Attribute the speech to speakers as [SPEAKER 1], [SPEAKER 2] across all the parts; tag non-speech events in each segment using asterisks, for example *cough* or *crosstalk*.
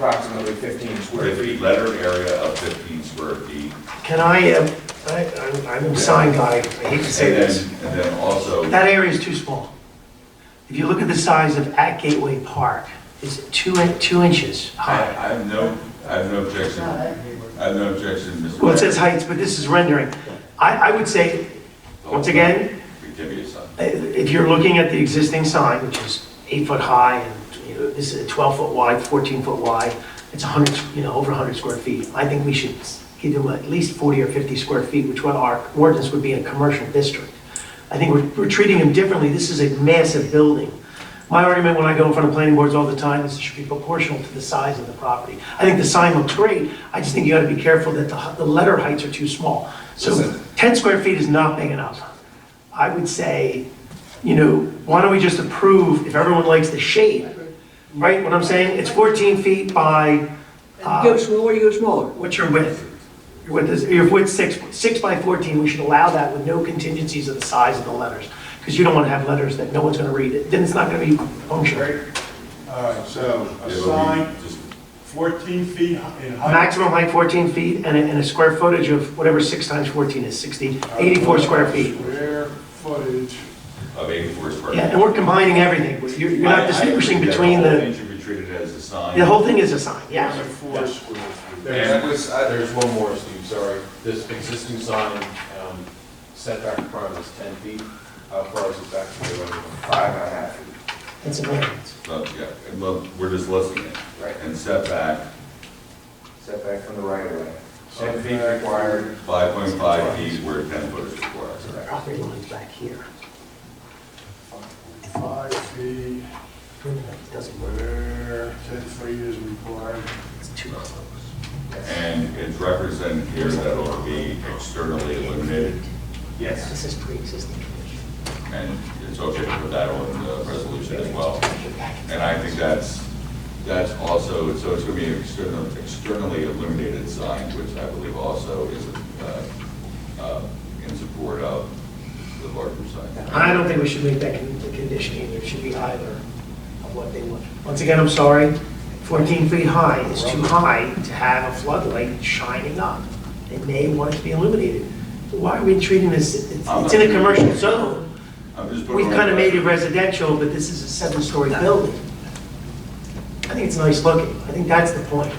[SPEAKER 1] approximately 15 square
[SPEAKER 2] Fifty,
[SPEAKER 1] feet.
[SPEAKER 2] lettered area of fifteen square feet.
[SPEAKER 3] Can I, um, I, I'm- I'm a sign guy, I hate to say
[SPEAKER 2] And then-
[SPEAKER 3] this.
[SPEAKER 2] And then also,
[SPEAKER 3] That area is too small. If you look at the size of at Gateway Park, it's two, in- two inches
[SPEAKER 2] I, I
[SPEAKER 3] high.
[SPEAKER 2] have no, I have no objection, I have no objection, Mr.
[SPEAKER 3] Well, it says heights, but this is rendering. I, I would say, once again,
[SPEAKER 2] Give me a sign.
[SPEAKER 3] i- Uh, if you're looking at the existing sign, which is eight foot high, and, you know, this is twelve foot wide, fourteen foot wide, it's a hundred, you know, over a hundred square feet, I think we should give them at least forty or fifty square feet, which what our ordinance would be in a commercial district. I think we're, we're treating them differently, this is a massive building. My argument when I go in front of planning boards all the time is it should be proportional to the size of the property. I think the sign looks great, I just think you gotta be careful that the, the letter heights are too small. So
[SPEAKER 1] Listen.
[SPEAKER 3] ten square feet is not big enough. I would say, you know, why don't we just approve if everyone likes the shape? Right, what I'm saying, it's 14 feet by,
[SPEAKER 4] Go smaller, you go smaller.
[SPEAKER 3] what's your width? Your width is, your width's six, six by 14, we should allow that with no contingencies of the size of the letters. Because you don't want to have letters that no one's going to read it, then it's not going to be functional.
[SPEAKER 5] All right, so a
[SPEAKER 2] Yeah, but we
[SPEAKER 5] sign
[SPEAKER 2] just-
[SPEAKER 5] 14 feet in height.
[SPEAKER 3] Maximum height 14 feet and a, and a square footage of whatever six times 14 is, 60, 84 square feet.
[SPEAKER 5] Square footage.
[SPEAKER 2] Of eighty-four square.
[SPEAKER 3] Yeah,
[SPEAKER 2] feet.
[SPEAKER 3] and we're combining everything, you're you're
[SPEAKER 2] I- I
[SPEAKER 3] not
[SPEAKER 2] agree
[SPEAKER 3] distinguishing
[SPEAKER 2] that
[SPEAKER 3] between
[SPEAKER 2] The whole
[SPEAKER 3] the,
[SPEAKER 2] thing should be treated as a sign.
[SPEAKER 3] the whole thing is a sign, yeah.
[SPEAKER 5] Four square feet.
[SPEAKER 6] There's, this- uh, there's one more, Steve, sorry. This existing sign um, setback requirement is 10 feet. How far is it back to the road? Five and a half feet.
[SPEAKER 3] It's a variance.
[SPEAKER 2] But, yeah, and look, we're just listing it.
[SPEAKER 6] Right.
[SPEAKER 2] And setback,
[SPEAKER 6] Setback from the right of way.
[SPEAKER 5] Ten feet required.
[SPEAKER 2] five point five feet where ten foot is required.
[SPEAKER 3] property line's back here.
[SPEAKER 5] Five feet,
[SPEAKER 3] It Doesn't work,
[SPEAKER 5] where 10 feet is required.
[SPEAKER 3] it's too close.
[SPEAKER 2] And it's represented here that it'll be externally illuminated,
[SPEAKER 3] This is pre-existing condition.
[SPEAKER 2] and it's okay to put that on the resolution as well.
[SPEAKER 3] Get back in.
[SPEAKER 2] And I think that's, that's also, so it's going to be an external- externally illuminated sign, which I believe also is uh, uh, in support of the larger sign.
[SPEAKER 3] I don't think we should make that con- the condition either, it should be either of what they want. Once again, I'm sorry, 14 feet high is too high to have a floodlight shining up. They may want it to be illuminated. Why are we treating this, it's it's in a commercial zone.
[SPEAKER 2] I'm just putting
[SPEAKER 3] We've
[SPEAKER 2] on-
[SPEAKER 3] kind of made it residential, but this is a seven-story building. I think it's nice looking, I think that's the point.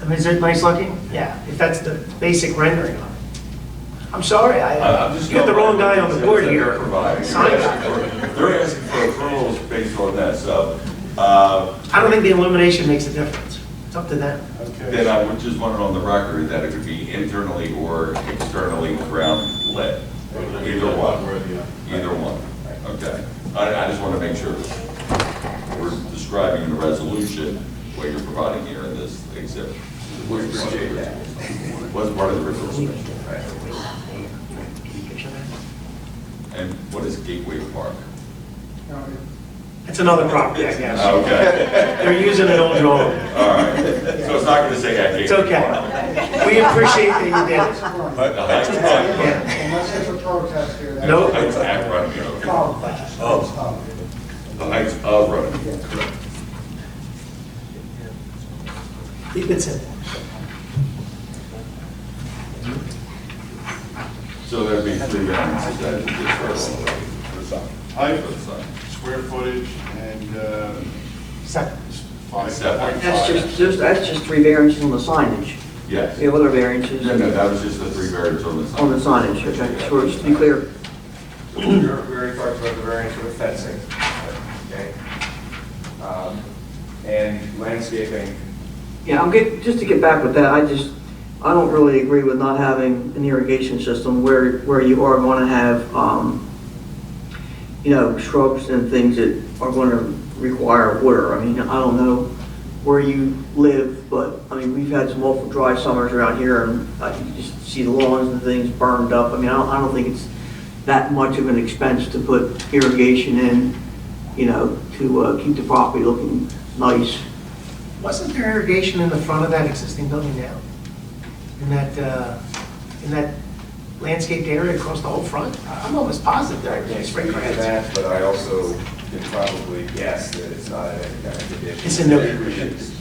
[SPEAKER 3] I mean, is it nice looking? Yeah, if that's the basic rendering of it. I'm sorry,
[SPEAKER 2] I-
[SPEAKER 3] I,
[SPEAKER 2] I'm just
[SPEAKER 3] you got the wrong
[SPEAKER 2] going by
[SPEAKER 3] guy on the
[SPEAKER 2] what
[SPEAKER 3] board
[SPEAKER 2] they're
[SPEAKER 3] here.
[SPEAKER 2] providing. *laughs*
[SPEAKER 3] Sign
[SPEAKER 2] They're
[SPEAKER 3] guy.
[SPEAKER 2] asking for- They're asking for approvals based on that, so, uh,
[SPEAKER 3] I don't think the illumination makes a difference, it's up to them.
[SPEAKER 5] Okay,
[SPEAKER 2] then I would just want it on the record that it could be internally or externally ground lit, either one.
[SPEAKER 6] Or the uh, other.
[SPEAKER 2] Either one, okay. I, I just want to make sure we're describing in the resolution what you're providing here in this exhibit. We appreciate that. Was part of the original submission. And what is Gateway Park?
[SPEAKER 3] It's another property, I guess.
[SPEAKER 2] Okay,
[SPEAKER 3] They're using an old drawing.
[SPEAKER 2] all right. So it's not going to say at
[SPEAKER 3] It's
[SPEAKER 2] Gateway Park.
[SPEAKER 3] okay. We appreciate that you did it.
[SPEAKER 2] But the height's at-
[SPEAKER 3] Yeah.
[SPEAKER 7] Unless there's a protest here. that's-
[SPEAKER 3] Nope.
[SPEAKER 2] height's at Runnymede, okay.
[SPEAKER 7] Oh, that's-
[SPEAKER 2] Oh. The height's of Runnymede.
[SPEAKER 3] Keep it simple.
[SPEAKER 2] So there'd be three variances that would differ.
[SPEAKER 5] height,
[SPEAKER 2] For the sign.
[SPEAKER 5] square footage, and uh,
[SPEAKER 3] Second.
[SPEAKER 5] five
[SPEAKER 2] Setback.
[SPEAKER 5] point
[SPEAKER 4] That's
[SPEAKER 5] five.
[SPEAKER 4] just, just- that's just three variances on the signage.
[SPEAKER 2] Yes.
[SPEAKER 4] We have other variances
[SPEAKER 2] No, no, that was just the three variants on the sign.
[SPEAKER 4] on the signage, okay, so just to be clear.
[SPEAKER 6] We already talked about the variance with fencing, okay? Um, And landscaping,
[SPEAKER 4] Yeah, I'm get, just to get back with that, I just, I don't really agree with not having an irrigation system where, where you are gonna have, um, you know, shrubs and things that are gonna require water. I mean, I don't know where you live, but, I mean, we've had some awful dry summers around here and uh, you just see the lawns and things burned up. I mean, I don't, I don't think it's that much of an expense to put irrigation in, you know, to, uh, keep the property looking nice.
[SPEAKER 3] Wasn't there irrigation in the front of that existing building now? In that, uh, in that landscaped area across the whole front? I'm almost positive there,
[SPEAKER 6] I
[SPEAKER 3] I
[SPEAKER 6] can't
[SPEAKER 3] spray
[SPEAKER 6] speak to
[SPEAKER 3] cans.
[SPEAKER 6] that, but I also then probably, yes, that it's not in any kind of condition.
[SPEAKER 3] It's in no-
[SPEAKER 6] Maybe we should